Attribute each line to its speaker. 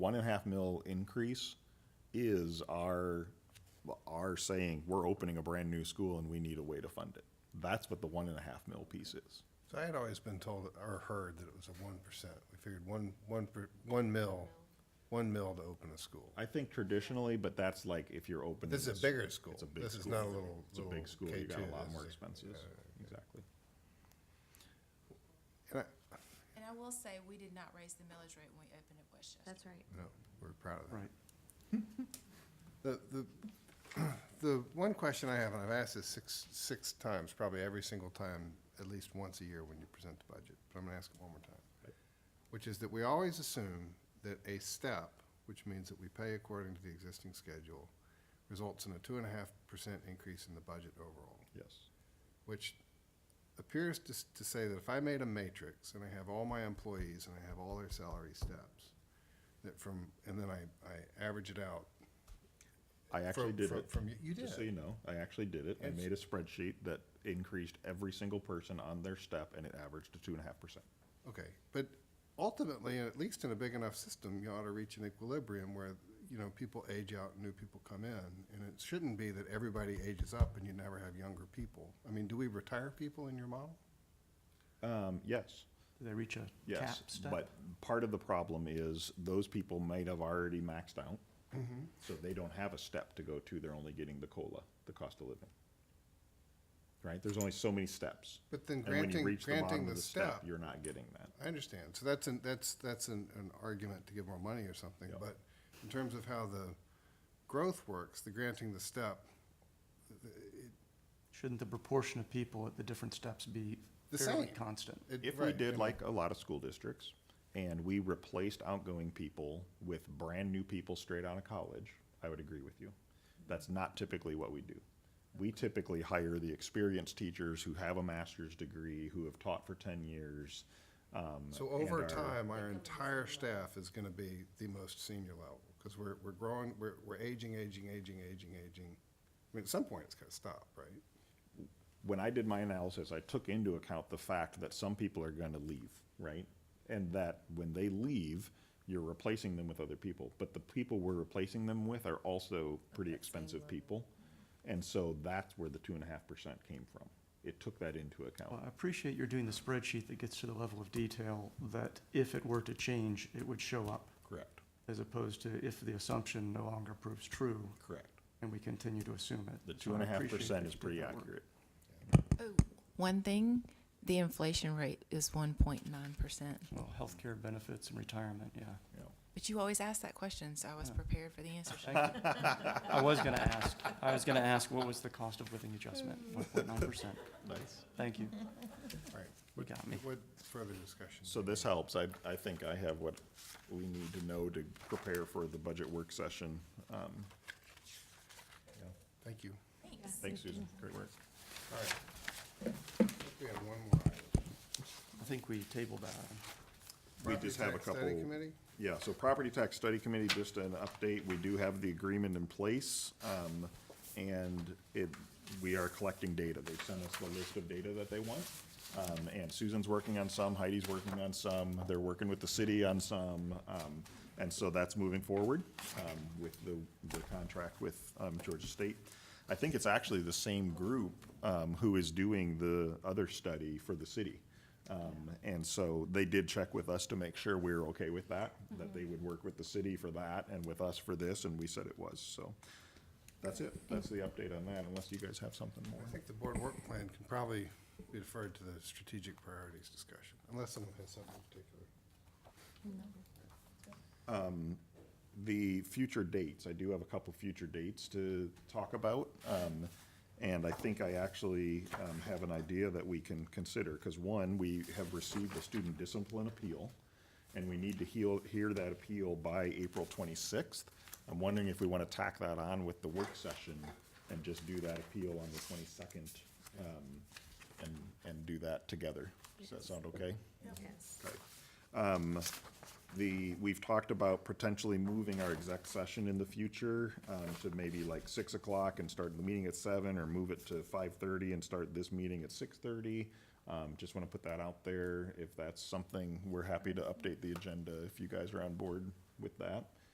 Speaker 1: one and a half mil increase is our, our saying, we're opening a brand-new school and we need a way to fund it. That's what the one and a half mil piece is.
Speaker 2: So I had always been told or heard that it was a one percent. We figured one, one, per- one mil, one mil to open a school.
Speaker 1: I think traditionally, but that's like if you're opening.
Speaker 2: This is a bigger school.
Speaker 1: It's a big
Speaker 2: This is
Speaker 1: school.
Speaker 2: not a little,
Speaker 1: It's a
Speaker 2: little
Speaker 1: big school, you
Speaker 2: K
Speaker 1: got
Speaker 2: two. Uh,
Speaker 1: a lot more expenses, exactly.
Speaker 3: And I will say, we did not raise the millage rate when we opened at Westchester.
Speaker 4: That's right.
Speaker 2: No, we're proud of that.
Speaker 5: Right.
Speaker 2: The, the, the one question I have, and I've asked this six, six times, probably every single time, at least once a year when you present the budget, but I'm gonna ask it one more time. Which is that we always assume that a step, which means that we pay according to the existing schedule, results in a two and a half percent increase in the budget overall
Speaker 1: Yes.
Speaker 2: which appears to, s- to say that if I made a matrix and I have all my employees and I have all their salary steps, that from, and then I, I average it out.
Speaker 1: I actually
Speaker 2: from-
Speaker 1: did
Speaker 2: from-
Speaker 1: it.
Speaker 2: From, you you did.
Speaker 1: Just so you know, I actually did it. I
Speaker 2: It's-
Speaker 1: made a spreadsheet that increased every single person on their step and it averaged to two and a half percent.
Speaker 2: Okay, but ultimately, and at least in a big enough system, you ought to reach an equilibrium where, you know, people age out and new people come in. And it shouldn't be that everybody ages up and you never have younger people. I mean, do we retire people in your model?
Speaker 1: Um, yes,
Speaker 5: Did they reach a cap
Speaker 1: yes.
Speaker 5: step?
Speaker 1: But part of the problem is those people might have already maxed out.
Speaker 2: Mm-hmm.
Speaker 1: So they don't have a step to go to. They're only getting the COLA, the cost of living. Right? There's only so many steps.
Speaker 2: But then
Speaker 1: And when you
Speaker 2: granting-
Speaker 1: reach the
Speaker 2: granting
Speaker 1: bottom
Speaker 2: the
Speaker 1: of the step,
Speaker 2: step-
Speaker 1: you're not getting that.
Speaker 2: I understand. So that's an, that's, that's an, an argument to give more money or something,
Speaker 1: Yep.
Speaker 2: but in terms of how the growth works, the granting the step,
Speaker 5: Shouldn't the proportion of people at the different steps be
Speaker 2: The
Speaker 5: fairly
Speaker 2: same.
Speaker 5: constant?
Speaker 2: it-
Speaker 1: If we
Speaker 2: right,
Speaker 1: did
Speaker 2: and-
Speaker 1: like a lot of school districts and we replaced outgoing people with brand new people straight out of college, I would agree with you. That's not typically what we do. We typically hire the experienced teachers who have a master's degree, who have taught for ten years. um,
Speaker 2: So
Speaker 1: and
Speaker 2: over
Speaker 1: are-
Speaker 2: time, our entire staff is gonna be the most senior level, because we're, we're growing, we're, we're aging, aging, aging, aging, aging. I mean, at some point, it's gonna stop, right?
Speaker 1: when I did my analysis, I took into account the fact that some people are going to leave, right? And that when they leave, you're replacing them with other people. But the people we're replacing them with are also pretty expensive people. And so that's where the two and a half percent came from. It took that into
Speaker 5: Well,
Speaker 1: account.
Speaker 5: I appreciate you're doing the spreadsheet that gets to the level of detail that if it were to change, it would show up,
Speaker 1: Correct,
Speaker 5: as opposed to if the assumption no longer proves true
Speaker 1: correct.
Speaker 5: and we continue to assume it.
Speaker 1: The
Speaker 5: So
Speaker 1: two
Speaker 5: I
Speaker 1: and a half
Speaker 5: appreciate
Speaker 1: percent
Speaker 5: that
Speaker 1: is
Speaker 5: you did
Speaker 1: pretty
Speaker 5: that work.
Speaker 1: accurate.
Speaker 3: Oh, one thing, the inflation rate is one point nine percent.
Speaker 5: Well, healthcare benefits and retirement, yeah.
Speaker 1: you know.
Speaker 3: But you always ask that question, so I was prepared for the answer.
Speaker 5: Thank you. I was gonna ask, I was gonna ask, what was the cost of living adjustment? One point nine percent.
Speaker 1: Nice.
Speaker 5: Thank you.
Speaker 2: All right,
Speaker 5: You got me.
Speaker 2: what further discussion?
Speaker 1: So this helps. I, I think I have what we need to know to prepare for the budget work session. Um,
Speaker 2: Thank you.
Speaker 3: Thanks.
Speaker 1: Thanks, Susan. Great work.
Speaker 2: All right. I think We have one more item.
Speaker 5: I think we tabled that item.
Speaker 1: We
Speaker 2: Property
Speaker 1: just have a
Speaker 2: tax study
Speaker 1: couple-
Speaker 2: committee?
Speaker 1: Yeah, so property tax study committee, just an update, we do have the agreement in place, um, and it, we are collecting data. They sent us the list of data that they want. Um, and Susan's working on some, Heidi's working on some, they're working with the city on some, um, and so that's moving forward, um, with the, the contract with, um, Georgia State. I think it's actually the same group, um, who is doing the other study for the city. Um, and so they did check with us to make sure we were okay with that, that they would work with the city for that and with us for this, and we said it was, so. That's it, that's the update on that, unless you guys have something more.
Speaker 2: I think the board work plan can probably be deferred to the strategic priorities discussion, unless someone has something in particular.
Speaker 1: the future dates, I do have a couple future dates to talk about. um, And I think I actually um, have an idea that we can consider, because one, we have received a student discipline appeal, and we need to heal, hear that appeal by April twenty-sixth. I'm wondering if we want to tack that on with the work session and just do that appeal on the twenty-second, um, and, and do that together. Does that sound okay? Okay. Um, The, we've talked about potentially moving our exec session in the future um, to maybe like six o'clock and start the meeting at seven, or move it to five-thirty and start this meeting at six-thirty. Just want to put that out there. If that's something, we're happy to update the agenda if you guys are on board with that.